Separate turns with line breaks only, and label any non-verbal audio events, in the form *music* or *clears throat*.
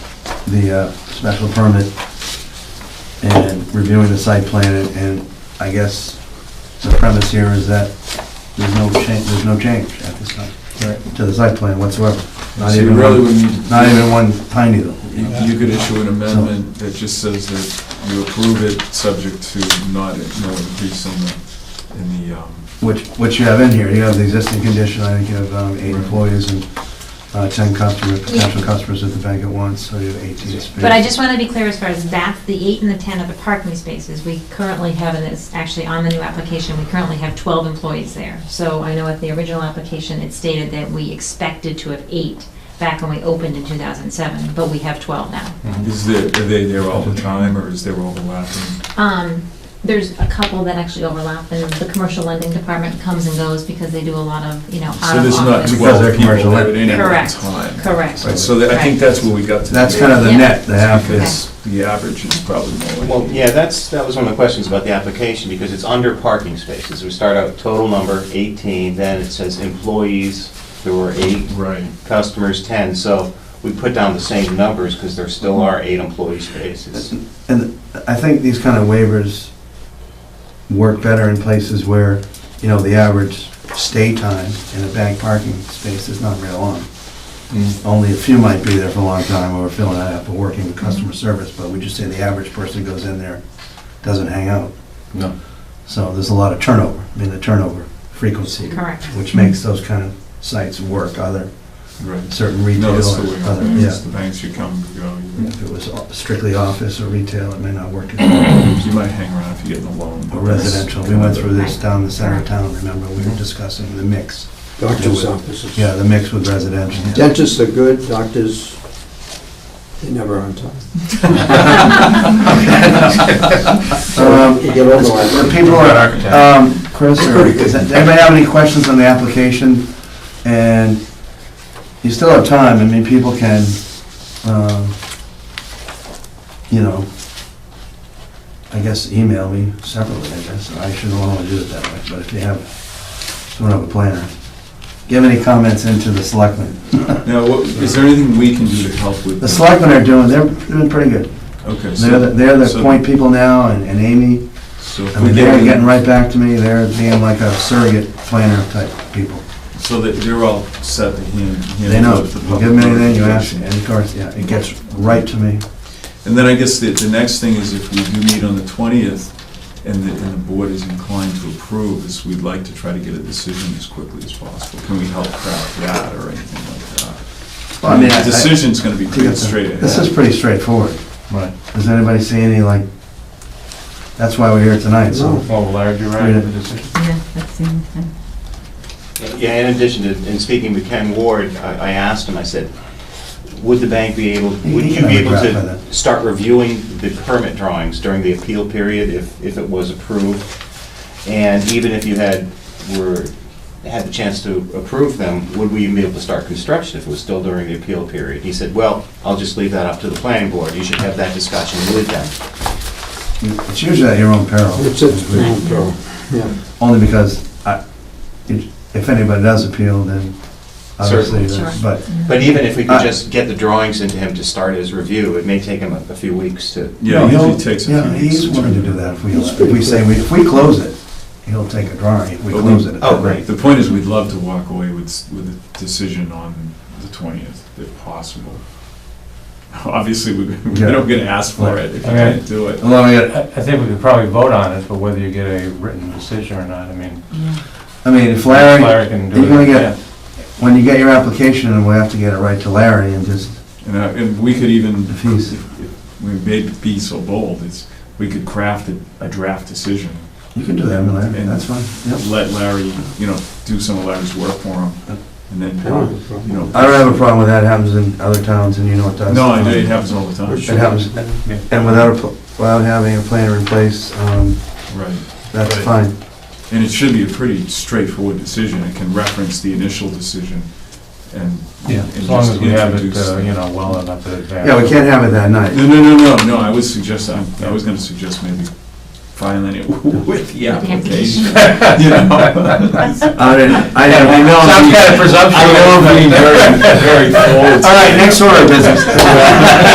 the uh, special permit and reviewing the site plan, and- and I guess the premise here is that there's no change, there's no change at this time
Right.
to the site plan whatsoever. Not
So you
even
really
one-
would need,
Not even one tiny little.
you you could issue an amendment that just says that you approve it, subject to not, no increase in the, in the, um,
Which, which you have in here, you have the existing condition, I think you have um, eight
Right.
employees and uh, 10 customer, potential customers at the bank at once, so you have 18 spaces.
But I just want to be clear as far as that's the eight and the 10 of the parking spaces. We currently have, and it's actually on the new application, we currently have 12 employees there. So I know at the original application, it stated that we expected to have eight back when we opened in 2007, but we have 12 now.
is there, are they there all the time, or is there overlapping?
Um, There's a couple that actually overlap, and the commercial lending department comes and goes because they do a lot of, you know, out
So
of
there's not
office.
Because they're
twelve people
commercial.
there at any one
Correct,
time.
correct.
Right, so that- I think that's where we got to.
That's kind of the
Yeah.
net, the half is,
Because the average is probably more. like-
Well, yeah, that's, that was one of the questions about the application, because it's under parking spaces. We start out total number 18, then it says employees, there were eight,
Right.
customers 10, so we put down the same numbers, because there still are eight employee spaces.
and I think these kind of waivers work better in places where, you know, the average stay time in a bank parking space is not real long. Only a few might be there for a long time, or filling that up, or working with customer service, but we just say the average person goes in there, doesn't hang out.
No.
So there's a lot of turnover, I mean, the turnover frequency.
Correct.
Which makes those kind of sites work, other,
Right.
certain
No,
retail
that's the way,
or other,
it
yeah.
is. the banks you come, you go, you-
If it was strictly office or retail, it may not
*clears throat*
work. Or
you might hang around if you get in a loan. but that's
residential, we went through this
Right.
down the center of town, remember, we were discussing the mix.
Doctor's offices.
Yeah, the mix with residential.
Dentists are good, doctors, they never on time. So
Um,
you get over
The
it.
people are, um, Chris, *laughs* or does anybody have any questions on the application? And you still have time, I mean, people can, um, you know, I guess email me separately, I guess, I shouldn't want to do it that way, but if you have, someone have a planner, give any comments into the selectmen.
Now, what- is there anything we can do to help with?
The
this?
selectmen are doing, they're, they've been pretty good,
Okay, so.
they're, the- they're the
so-
point people now, and and Amy,
So if
I
we
mean, they're
get,
getting
in-
right back to me, they're being like a surrogate planner type people.
so that they're all set to hand.
They know, you give them anything, you ask, and of course, yeah, it gets right to me.
And then I guess the, the next thing is if we do meet on the twentieth, and the, and the board is inclined to approve, is we'd like to try to get a decision as quickly as possible. Can we help craft that or anything like that?
Well, I mean, I- I-
The decision's gonna be
think
pretty
it's a-
straight ahead.
This is pretty straightforward.
Right.
Does anybody see any, like, that's why we're here tonight, so.
No.
Well, Larry, do you
write the
Yeah, that's the only thing.
Yeah, in addition to, in speaking with Ken Ward, I I asked him, I said, would the bank be able,
He-
would
he
you be able
got a graph
to
of
start reviewing the permit drawings during the appeal period if, if it was approved? And even if you had, were, had the chance to approve them, would we even be able to start construction if it was still during the appeal period? He said, well, I'll just leave that up to the planning board, you should have that discussion with them.
It's usually at your own peril.
It's, it's, no, bro. yeah.
Only because I, it- if anybody does appeal, then obviously,
Certainly.
that's-
Sure.
but
But even if we
Uh,
could just get the drawings into him to start his review, it may take him a a few weeks to
Yeah,
No,
it
he'll-
usually takes a
Yeah,
few weeks.
he's willing to do that if we,
He's
if we
pretty
say,
good.
we- if we close it, he'll take a drawing, if we
But
close it.
Oh, great.
The point is, we'd love to walk away with, s- with a decision on the twentieth, if possible. Obviously, we, we
Yeah.
don't get asked for it if you
Okay.
can't do it.
Allow me to-
I I think we could probably vote on it, but whether you get a written decision or not, I mean,
I mean, if
Larry
Larry,
can do it.
you're gonna
yeah.
get, when you get your application, and we'll have to get it right to Larry and just,
And, uh, and we could even,
If he's-
if- if we may be so bold, is we could craft a, a draft decision.
you can do that, Larry,
And-
that's fine, yep.
Let Larry, you know, do some of Larry's work for him, and
I don't have
then,
a problem.
you know.
I don't have a problem with that, it happens in other towns, and you know it does.
No, I do, it happens all the
For
time.
sure.
happens.
Yeah.
And without, a pl- without having a planner in place, um,
Right.
that's
Right.
fine.
And it should be a pretty straightforward decision. It can reference the initial decision and.
Yeah,
and
as long
just
as we have it,
introduce
uh,
the-
you know, well enough in advance.
Yeah, we can't have it that
No,
night.
no, no, no, no, I was suggest, I I was gonna suggest maybe filing it *laughs* with the *laughs* application, you know?
I didn't, I didn't.
Some kind of presumption.
I know I'm being very, very bold.
*laughs* All right, next order of business.